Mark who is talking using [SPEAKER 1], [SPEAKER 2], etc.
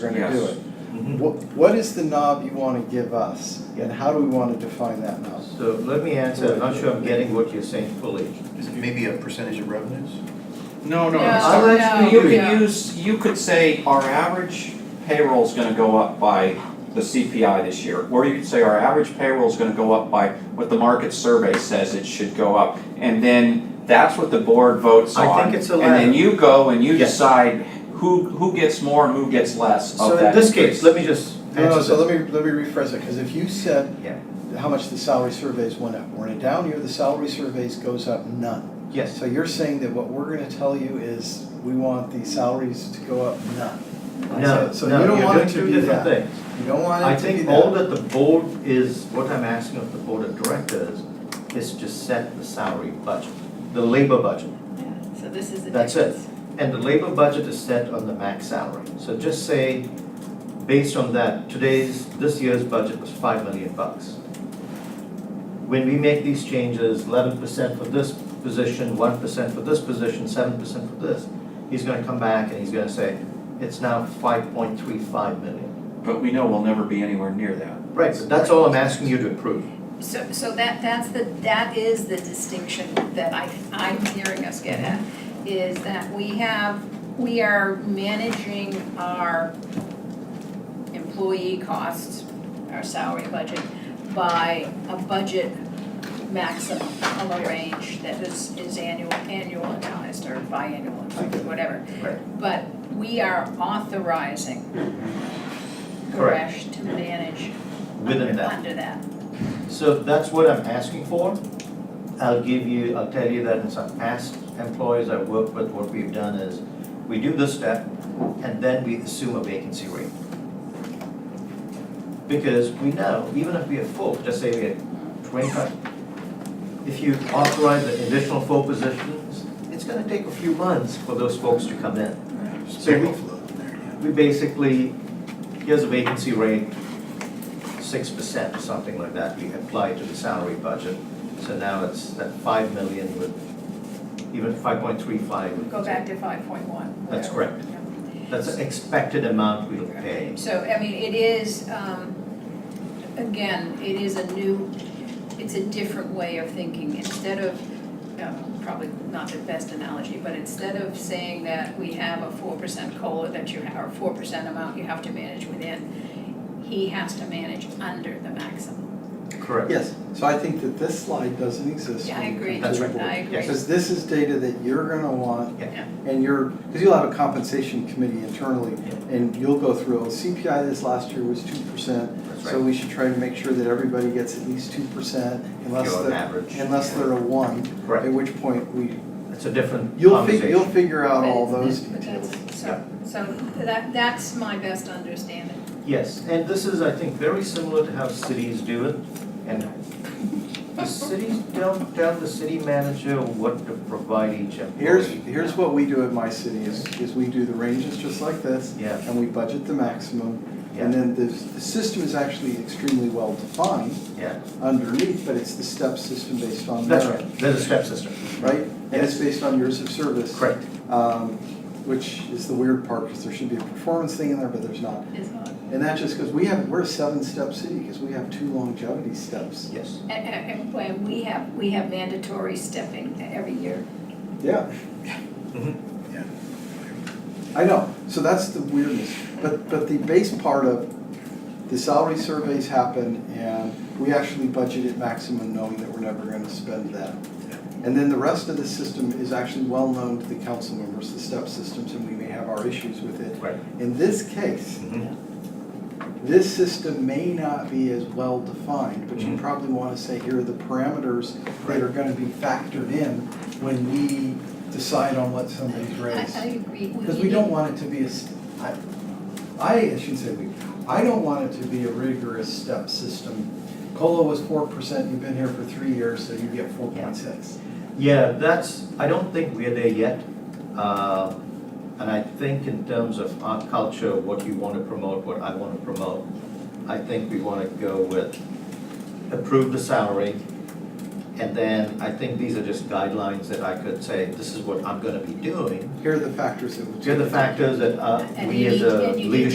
[SPEAKER 1] we're gonna do
[SPEAKER 2] Yes.
[SPEAKER 1] it.
[SPEAKER 3] Mm-hmm.
[SPEAKER 1] What, what is the knob you wanna give us, and how do we wanna define that knob?
[SPEAKER 3] So let me answer, I'm not sure I'm getting what you're saying fully.
[SPEAKER 4] Is it maybe a percentage of revenues?
[SPEAKER 2] No, no,
[SPEAKER 5] No,
[SPEAKER 2] I'm sorry.
[SPEAKER 5] no,
[SPEAKER 2] Oh, You could
[SPEAKER 5] no.
[SPEAKER 2] use, you could say our average payroll's gonna go up by the CPI this year. Or you could say our average payroll's gonna go up by what the market survey says it should go up. And then that's what the board votes on.
[SPEAKER 3] I think it's a
[SPEAKER 2] And then
[SPEAKER 3] ladder.
[SPEAKER 2] you go and you
[SPEAKER 3] Yes.
[SPEAKER 2] decide who, who gets more and who gets less
[SPEAKER 3] So
[SPEAKER 2] of
[SPEAKER 3] in
[SPEAKER 2] that
[SPEAKER 3] this
[SPEAKER 2] increase.
[SPEAKER 3] case, let me just
[SPEAKER 1] No, no,
[SPEAKER 3] answer
[SPEAKER 1] so
[SPEAKER 3] this.
[SPEAKER 1] let me, let me rephrase it, cause if you said
[SPEAKER 3] Yeah.
[SPEAKER 1] how much the salary surveys went up, we're in a down year, the salary surveys goes up none.
[SPEAKER 3] Yes,
[SPEAKER 1] So you're saying that what we're gonna tell you is, we want the salaries to go up none?
[SPEAKER 3] no,
[SPEAKER 1] So- so you
[SPEAKER 3] no,
[SPEAKER 1] don't
[SPEAKER 3] you're
[SPEAKER 1] want it
[SPEAKER 3] doing
[SPEAKER 1] to
[SPEAKER 3] two
[SPEAKER 1] be
[SPEAKER 3] different
[SPEAKER 1] that.
[SPEAKER 3] things.
[SPEAKER 1] You don't want
[SPEAKER 3] I
[SPEAKER 1] it to be
[SPEAKER 3] think
[SPEAKER 1] that.
[SPEAKER 3] all that the board is, what I'm asking of the board of directors is to set the salary budget, the labor budget.
[SPEAKER 5] Yeah, So this is the
[SPEAKER 3] That's it.
[SPEAKER 5] difference.
[SPEAKER 3] And the labor budget is set on the max salary. So just say, based on that, today's, this year's budget was five million bucks. When we make these changes, eleven percent for this position, one percent for this position, seven percent for this, he's gonna come back and he's gonna say, it's now five point three five million.
[SPEAKER 2] But we know we'll never be anywhere near that.
[SPEAKER 3] Right, so that's all I'm asking you to approve.
[SPEAKER 5] So, so that, that's the, that is the distinction that I, I'm hearing us get at, is that we have, we are managing our employee costs, our salary budget, by a budget maximum of a range that is, is annual, annual announced or biannual, whatever.
[SPEAKER 3] Right.
[SPEAKER 5] But we are authorizing
[SPEAKER 3] Mm-hmm. Correct.
[SPEAKER 5] Koresh to manage
[SPEAKER 3] Within
[SPEAKER 5] under-
[SPEAKER 3] that.
[SPEAKER 5] Under that.
[SPEAKER 3] So that's what I'm asking for. I'll give you, I'll tell you that in some past employees I've worked with, what we've done is, we do this step, and then we assume a vacancy rate. Because we know, even if we are full, just say we are twenty-five, if you authorize an additional four positions, it's gonna take a few months for those folks to come in.
[SPEAKER 4] Just
[SPEAKER 3] So we-
[SPEAKER 4] payroll flow in there, yeah.
[SPEAKER 3] We basically, here's a vacancy rate, six percent, something like that, we apply to the salary budget. So now it's that five million with, even five point three five.
[SPEAKER 5] Go back to five point one.
[SPEAKER 3] That's correct. That's an expected amount we'll pay.
[SPEAKER 5] So, I mean, it is, um, again, it is a new, it's a different way of thinking. Instead of, um, probably not the best analogy, but instead of saying that we have a four percent COLA that you, ha- or four percent amount you have to manage within, he has to manage under the maximum.
[SPEAKER 3] Correct.
[SPEAKER 1] Yes, so I think that this slide doesn't exist.
[SPEAKER 5] Yeah, I
[SPEAKER 1] when it
[SPEAKER 5] agree.
[SPEAKER 1] comes to the
[SPEAKER 3] That's
[SPEAKER 1] board.
[SPEAKER 5] I agree.
[SPEAKER 1] Because this is data that you're gonna want.
[SPEAKER 3] Yeah.
[SPEAKER 1] And you're, because you'll have a compensation committee internally,
[SPEAKER 3] Yeah.
[SPEAKER 1] and you'll go through, oh, CPI this last year was two percent,
[SPEAKER 3] That's
[SPEAKER 1] so
[SPEAKER 3] right.
[SPEAKER 1] we should try to make sure that everybody gets at least two percent, unless
[SPEAKER 3] You're on
[SPEAKER 1] they're,
[SPEAKER 3] average.
[SPEAKER 1] unless they're a one, at
[SPEAKER 3] Correct.
[SPEAKER 1] which point we,
[SPEAKER 3] It's a different
[SPEAKER 1] you'll fig, you'll
[SPEAKER 3] conversation.
[SPEAKER 1] figure out all
[SPEAKER 5] But
[SPEAKER 1] those
[SPEAKER 5] it's- but
[SPEAKER 1] details.
[SPEAKER 5] that's- So, so that, that's my best understanding.
[SPEAKER 3] Yes, and this is, I think, very similar to how cities do it. And the cities don't tell the city manager what to provide each employee.
[SPEAKER 1] Here's, here's what we do at my city, is, is we do the ranges just like this,
[SPEAKER 3] Yeah.
[SPEAKER 1] and we budget the maximum, And
[SPEAKER 3] Yeah,
[SPEAKER 1] then the, the system is actually extremely well defined
[SPEAKER 3] yeah,
[SPEAKER 1] underneath, but it's the step system based on
[SPEAKER 3] that's
[SPEAKER 1] merit,
[SPEAKER 3] right, there's a step system,
[SPEAKER 1] right? And it's based on years of service.
[SPEAKER 3] correct.
[SPEAKER 1] Um, which is the weird part, because there should be a performance thing in there, but there's not.
[SPEAKER 5] It's not-
[SPEAKER 1] And that just goes, we have, we're a seven-step city, because we have two longevity steps.
[SPEAKER 3] Yes.
[SPEAKER 5] And, and, and when we have, we have mandatory stepping every year.
[SPEAKER 1] Yeah.
[SPEAKER 3] Mhm.
[SPEAKER 4] Yeah.
[SPEAKER 1] I know, so that's the weirdness, but, but the base part of, the salary surveys happen, and we actually budget at maximum knowing that we're never gonna spend that. And then the rest of the system is actually well-known to the council members, the step systems, and we may have our issues with it.
[SPEAKER 3] Right.
[SPEAKER 1] In this case,
[SPEAKER 3] Mhm.
[SPEAKER 1] this system may not be as well-defined, but you
[SPEAKER 3] Mhm.
[SPEAKER 1] probably wanna say, here are the parameters that
[SPEAKER 3] Right.
[SPEAKER 1] are gonna be factored in when we decide on what somebody's
[SPEAKER 5] I,
[SPEAKER 1] raised.
[SPEAKER 5] I agree.
[SPEAKER 1] Because we don't want it to be a, s- I, I shouldn't say we, I don't want it to be a rigorous step system. COLA was four percent, you've been here for three years, so you get four point six.
[SPEAKER 3] Yeah, that's, I don't think we're there yet. Um, And I think in terms of our culture, what you want to promote, what I want to promote, I think we want to go with approve the salary. And then I think these are just guidelines that I could say, this is what I'm going to be doing.
[SPEAKER 1] Here are the factors that would.
[SPEAKER 3] Here are the factors that uh,
[SPEAKER 5] And
[SPEAKER 3] we
[SPEAKER 5] you
[SPEAKER 3] as
[SPEAKER 5] need-
[SPEAKER 3] a
[SPEAKER 5] and you need
[SPEAKER 3] leadership